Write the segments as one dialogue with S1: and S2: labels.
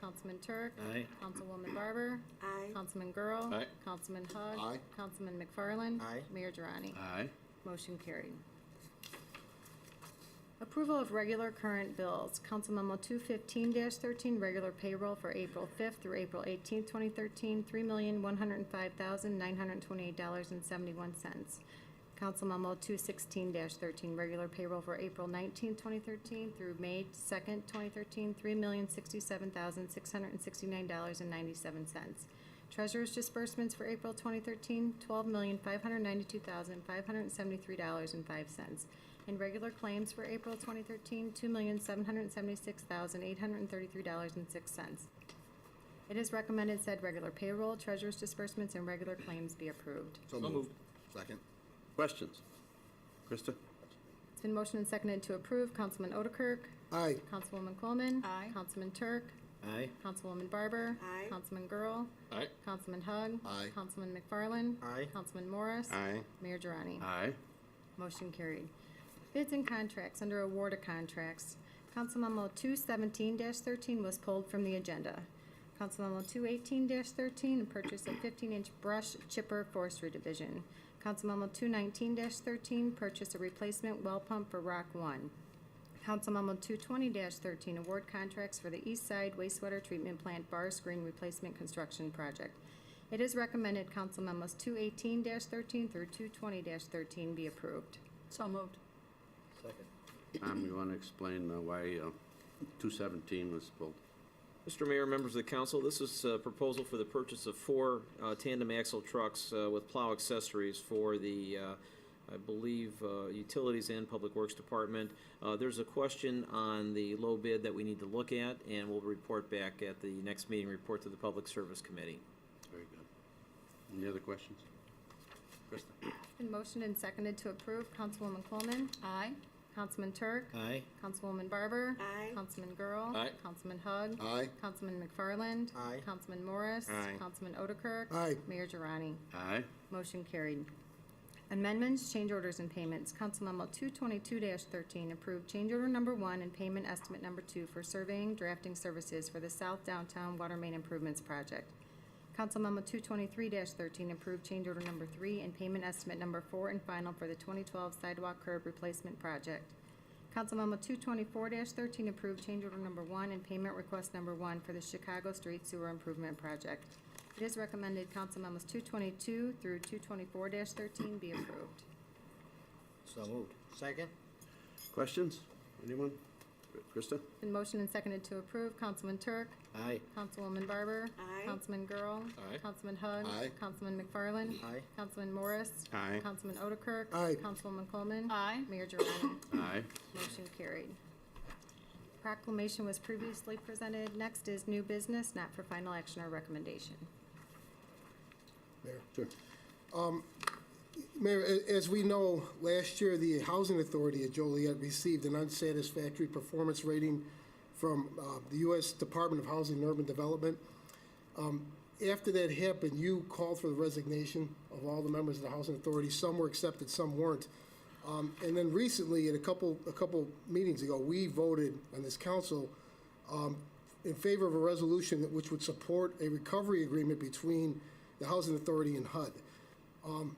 S1: Councilman Turk.
S2: Aye.
S1: Councilwoman Barber.
S3: Aye.
S1: Councilman Girl.
S2: Aye.
S1: Councilman Hug.
S4: Aye.
S1: Councilman McFarland.
S4: Aye.
S1: Mayor Durrani.
S2: Aye.
S1: Motion carried. Approval of regular current bills. Council Memo 215-13, regular payroll for April 5th through April 18th, 2013, $3,105,928.71. Council Memo 216-13, regular payroll for April 19th, 2013 through May 2nd, 2013, $3,067,669.97. Treasurer's disbursements for April 2013, $12,592,573.05. And regular claims for April 2013, $2,776,833.06. It is recommended said regular payroll, treasurer's disbursements, and regular claims be approved.
S4: So moved. Second.
S2: Questions? Krista?
S1: It's been motioned and seconded to approve. Councilman Otterkirk?
S4: Aye.
S1: Councilwoman Coleman?
S3: Aye.
S1: Councilman Turk?
S2: Aye.
S1: Councilwoman Barber?
S3: Aye.
S1: Councilman Girl?
S2: Aye.
S1: Councilman Hug?
S4: Aye.
S1: Councilman McFarland?
S4: Aye.
S1: Councilman Morris?
S4: Aye.
S1: Mayor Durrani?
S2: Aye.
S1: Motion carried. Bids and contracts, under award of contracts, Council Memo two seventeen thirteen was pulled from the agenda. Council Memo two eighteen thirteen, a purchase of fifteen-inch brush chipper forestry division. Council Memo two nineteen thirteen, purchase a replacement well pump for Rock One. Council Memo two twenty thirteen, award contracts for the East Side wastewater treatment plant bar screen replacement construction project. It is recommended Council Memos two eighteen thirteen through two twenty thirteen be approved.
S3: So moved.
S2: Tom, you want to explain uh, why uh, 217 was pulled?
S5: Mr. Mayor, members of the council, this is a proposal for the purchase of four uh, tandem axle trucks uh, with plow accessories for the, uh, I believe, uh, Utilities and Public Works Department. Uh, There's a question on the low bid that we need to look at, and we'll report back at the next meeting, report to the Public Service Committee.
S2: Very good. Any other questions? Krista?
S1: Been motioned and seconded to approve. Councilwoman Coleman?
S3: Aye.
S1: Councilman Turk?
S2: Aye.
S1: Councilwoman Barber?
S3: Aye.
S1: Councilman Girl?
S2: Aye.
S1: Councilman Hug?
S4: Aye.
S1: Councilman McFarland?
S4: Aye.
S1: Councilman Morris?
S2: Aye.
S1: Councilman Otterkirk?
S4: Aye.
S1: Mayor Girani?
S2: Aye.
S1: Motion carried. Amendments, change orders, and payments. Council Memo 222-13, approved change order number one and payment estimate number two for surveying drafting services for the South Downtown Water Main Improvements Project. Council Memo 223-13, approved change order number three and payment estimate number four and final for the 2012 sidewalk curb replacement project. Council Memo 224-13, approved change order number one and payment request number one for the Chicago Street Sewer Improvement Project. It is recommended Council Memos 222 through 224-13 be approved.
S4: So moved. Second.
S2: Questions? Anyone? Krista?
S1: Been motioned and seconded to approve. Councilman Turk.
S2: Aye.
S1: Councilwoman Barber.
S3: Aye.
S1: Councilman Girl.
S2: Aye.
S1: Councilman Hug.
S4: Aye.
S1: Councilman McFarland.
S4: Aye.
S1: Councilman Morris.
S2: Aye.
S1: Councilman Otterkirk.
S4: Aye.
S1: Councilwoman Coleman.
S3: Aye.
S1: Mayor Gerani.
S2: Aye.
S1: Motion carried. Proclamation was previously presented. Next is new business, not for final action or recommendation.
S6: Mayor.
S2: Sure.
S6: Mayor, a- as we know, last year, the Housing Authority at Joliet received an unsatisfactory performance rating from uh, the U.S. Department of Housing and Urban Development. Um, After that happened, you called for the resignation of all the members of the Housing Authority. Some were accepted, some weren't. Um, And then recently, at a couple, a couple meetings ago, we voted on this council um, in favor of a resolution that which would support a recovery agreement between the Housing Authority and HUD. Um,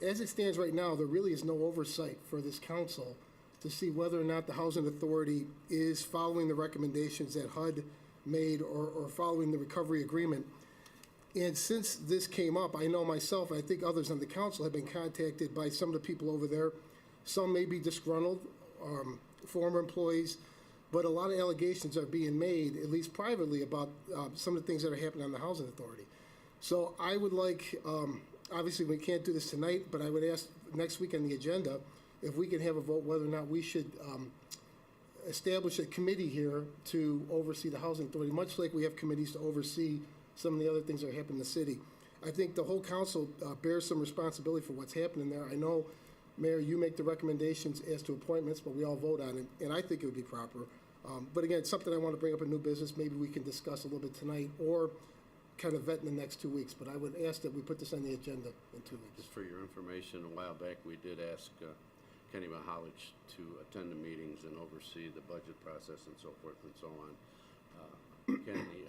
S6: As it stands right now, there really is no oversight for this council to see whether or not the Housing Authority is following the recommendations that HUD made or, or following the recovery agreement. And since this came up, I know myself, I think others on the council have been contacted by some of the people over there. Some may be disgruntled, um, former employees, but a lot of allegations are being made, at least privately, about, uh, some of the things that are happening on the housing authority. So I would like, um, obviously, we can't do this tonight, but I would ask next week on the agenda, if we can have a vote whether or not we should, um, establish a committee here to oversee the housing authority, much like we have committees to oversee some of the other things that happen in the city. I think the whole council uh, bears some responsibility for what's happening there. I know, Mayor, you make the recommendations as to appointments, but we all vote on it, and I think it would be proper. Um, But again, it's something I want to bring up in new business, maybe we can discuss a little bit tonight, or kind of vet in the next two weeks. But I would ask that we put this on the agenda in two weeks.
S2: Just for your information, a while back, we did ask uh, Kenny Mahalich to attend the meetings and oversee the budget process and so forth and so on. Uh, Ken